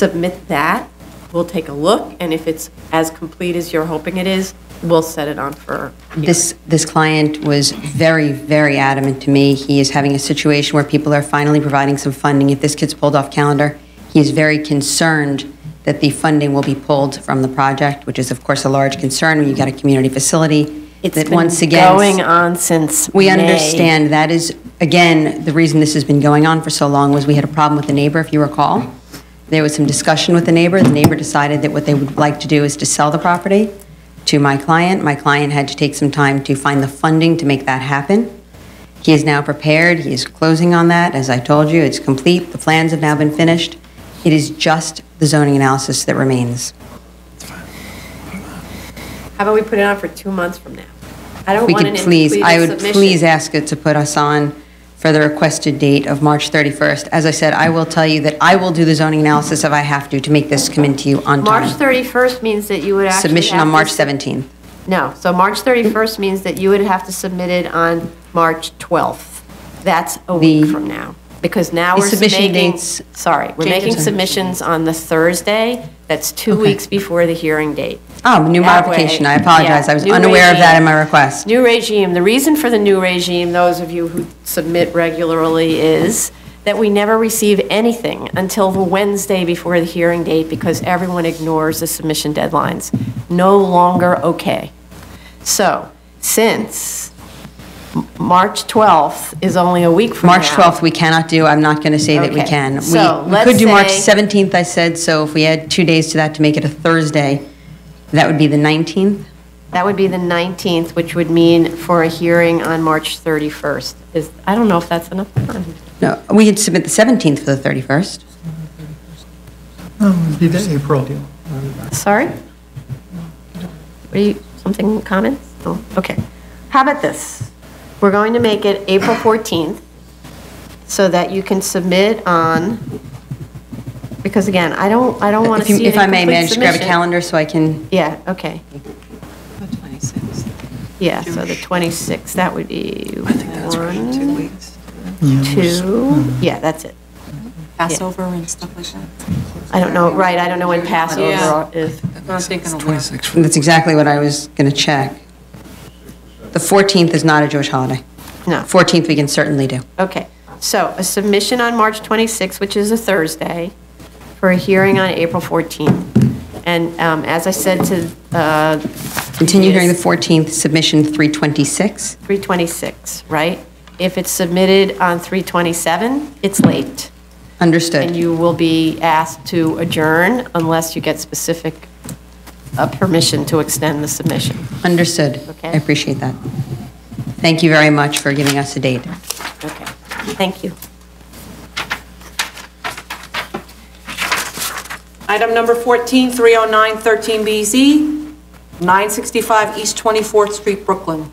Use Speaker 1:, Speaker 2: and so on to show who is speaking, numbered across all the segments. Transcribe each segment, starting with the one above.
Speaker 1: submit that, we'll take a look, and if it's as complete as you're hoping it is, we'll set it on for,
Speaker 2: This, this client was very, very adamant to me. He is having a situation where people are finally providing some funding. If this gets pulled off calendar, he is very concerned that the funding will be pulled from the project, which is, of course, a large concern when you've got a community facility
Speaker 1: it's
Speaker 2: that
Speaker 1: been
Speaker 2: once again.
Speaker 1: going on since
Speaker 2: We
Speaker 1: May.
Speaker 2: understand that is, again, the reason this has been going on for so long was we had a problem with the neighbor, if you recall. There was some discussion with the neighbor. The neighbor decided that what they would like to do is to sell the property to my client. My client had to take some time to find the funding to make that happen. He is now prepared. He is closing on that. As I told you, it's complete. The plans have now been finished. It is just the zoning analysis that remains.
Speaker 1: How about we put it on for two months from now? I don't
Speaker 2: We
Speaker 1: want an
Speaker 2: could please,
Speaker 1: incomplete
Speaker 2: I would
Speaker 1: submission.
Speaker 2: please ask it to put us on for the requested date of March 31st. As I said, I will tell you that I will do the zoning analysis if I have to, to make this come into you on
Speaker 1: March
Speaker 2: time.
Speaker 1: 31st means that you would actually
Speaker 2: Submission
Speaker 1: have
Speaker 2: on
Speaker 1: to
Speaker 2: March
Speaker 1: sub-
Speaker 2: 17th.
Speaker 1: No, so March 31st means that you would have to submit it on March 12th. That's a week
Speaker 2: The-
Speaker 1: from now, because now
Speaker 2: The
Speaker 1: we're
Speaker 2: submission
Speaker 1: making,
Speaker 2: dates-
Speaker 1: sorry, we're
Speaker 2: Change of
Speaker 1: making
Speaker 2: submission.
Speaker 1: submissions on the Thursday, that's two
Speaker 2: Okay.
Speaker 1: weeks before the hearing date.
Speaker 2: Oh, new
Speaker 1: That
Speaker 2: modification,
Speaker 1: way-
Speaker 2: I apologize,
Speaker 1: yeah,
Speaker 2: I was
Speaker 1: new
Speaker 2: unaware of that in my
Speaker 1: regime.
Speaker 2: request.
Speaker 1: New regime, the reason for the new regime, those of you who submit regularly, is that we never receive anything until the Wednesday before the hearing date because everyone ignores the submission deadlines. No longer okay. So, since M- March 12th is only a week from now.
Speaker 2: March 12th, we cannot do, I'm not going to say that we
Speaker 1: Okay.
Speaker 2: can. We-
Speaker 1: So,
Speaker 2: We could do March
Speaker 1: let's say-
Speaker 2: 17th, I said, so if we add two days to that to make it a Thursday, that would be the 19th?
Speaker 1: That would be the 19th, which would mean for a hearing on March 31st. Is, I don't know if that's enough time.
Speaker 2: No, we could submit the 17th for the 31st.
Speaker 3: No, it'd be the April.
Speaker 1: Sorry? What do you, something, comments? No? Okay. How about this? We're going to make it April 14th so that you can submit on, because again, I don't, I don't want
Speaker 2: If
Speaker 1: to
Speaker 2: you-
Speaker 1: see it
Speaker 2: if I may, may I just grab a
Speaker 1: submission.
Speaker 2: calendar so I can?
Speaker 1: Yeah, okay.
Speaker 4: The 26th.
Speaker 1: Yeah, so the 26th, that would be
Speaker 4: I think that's right, two
Speaker 1: one,
Speaker 4: weeks.
Speaker 1: two, yeah, that's it.
Speaker 4: Passover and stuff like that.
Speaker 1: I don't know, right, I don't know when
Speaker 4: Yeah.
Speaker 1: Passover is.
Speaker 4: I was thinking of what-
Speaker 2: That's exactly what I was going to check. The 14th is not a Jewish holiday.
Speaker 1: No.
Speaker 2: 14th we can certainly do.
Speaker 1: Okay, so a submission on March 26th, which is a Thursday, for a hearing on April 14th. And um, as I said to, uh,
Speaker 2: Continue hearing the
Speaker 1: Yes.
Speaker 2: 14th, submission 326.
Speaker 1: 326, right? If it's submitted on 327, it's late, and
Speaker 2: Understood.
Speaker 1: you will be asked to adjourn unless you get specific uh, permission to extend the submission.
Speaker 2: Understood.
Speaker 1: Okay.
Speaker 2: I appreciate that. Thank you very much for giving us a date.
Speaker 1: Okay, thank you.
Speaker 5: Item number oh 14, 309-13BZ, 965 East 24th Street, Brooklyn.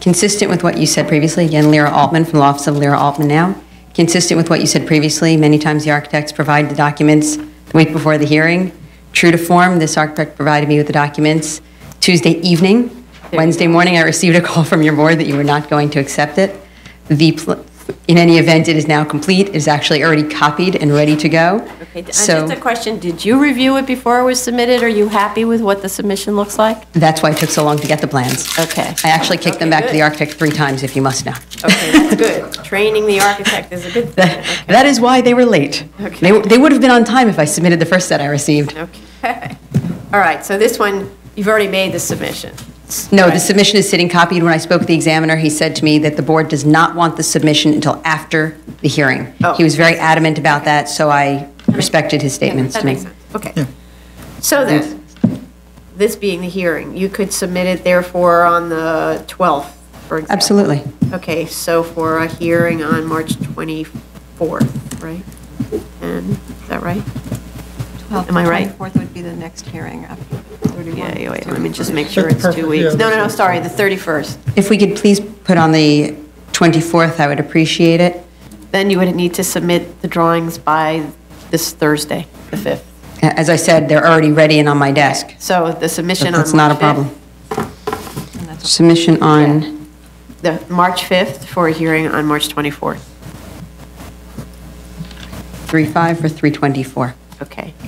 Speaker 2: Consistent with what you said previously, again, Lyra Altman from the Office of Lyra Altman now. Consistent with what you said previously, many times the architects provide the documents the week before the hearing. True to form, this architect provided me with the documents Tuesday evening. Wednesday morning, I received a call from your board that you were not going to accept it. The, pl- in any event, it is now complete, it is actually already copied and ready to go.
Speaker 1: Okay, and
Speaker 2: So
Speaker 1: just a question, did you review it before it was submitted? Are you happy with what the submission looks like?
Speaker 2: that's why it took so long to get the plans.
Speaker 1: Okay.
Speaker 2: I actually kicked them
Speaker 1: Okay,
Speaker 2: back to the
Speaker 1: good.
Speaker 2: architect three times, if you must know.
Speaker 1: Okay, that's good. Training the architect is a good thing.
Speaker 2: That that is why they were late.
Speaker 1: Okay.
Speaker 2: They w- They would have been on time if I submitted the first set I received.
Speaker 1: Okay. All right, so this one, you've already made the submission.
Speaker 2: No, the submission is sitting copied. When I spoke to the examiner, he said to me that the board does not want the submission until after the hearing.
Speaker 1: Oh.
Speaker 2: He was very adamant about that, so I respected his statements
Speaker 1: That
Speaker 2: to me.
Speaker 1: makes sense, okay. So then, this being the hearing, you could submit it therefore on the 12th, for example.
Speaker 2: Absolutely.
Speaker 1: Okay, so for a hearing on March 24th, right? And, is that right? Am I right?
Speaker 4: 24th would be the next hearing after
Speaker 1: Yeah,
Speaker 4: 31.
Speaker 1: yeah, wait, let me just make sure it's two weeks. No, no, no, sorry, the 31st.
Speaker 2: If we could please put on the 24th, I would appreciate it.
Speaker 1: Then you would need to submit the drawings by this Thursday, the 5th.
Speaker 2: A- As I said, they're already ready and on my desk.
Speaker 1: So the submission on
Speaker 2: That's not a
Speaker 1: March 5th.
Speaker 2: problem. Submission on,
Speaker 1: The March 5th for a hearing on March 24th.
Speaker 2: 3.5 or 3.24?
Speaker 6: Okay.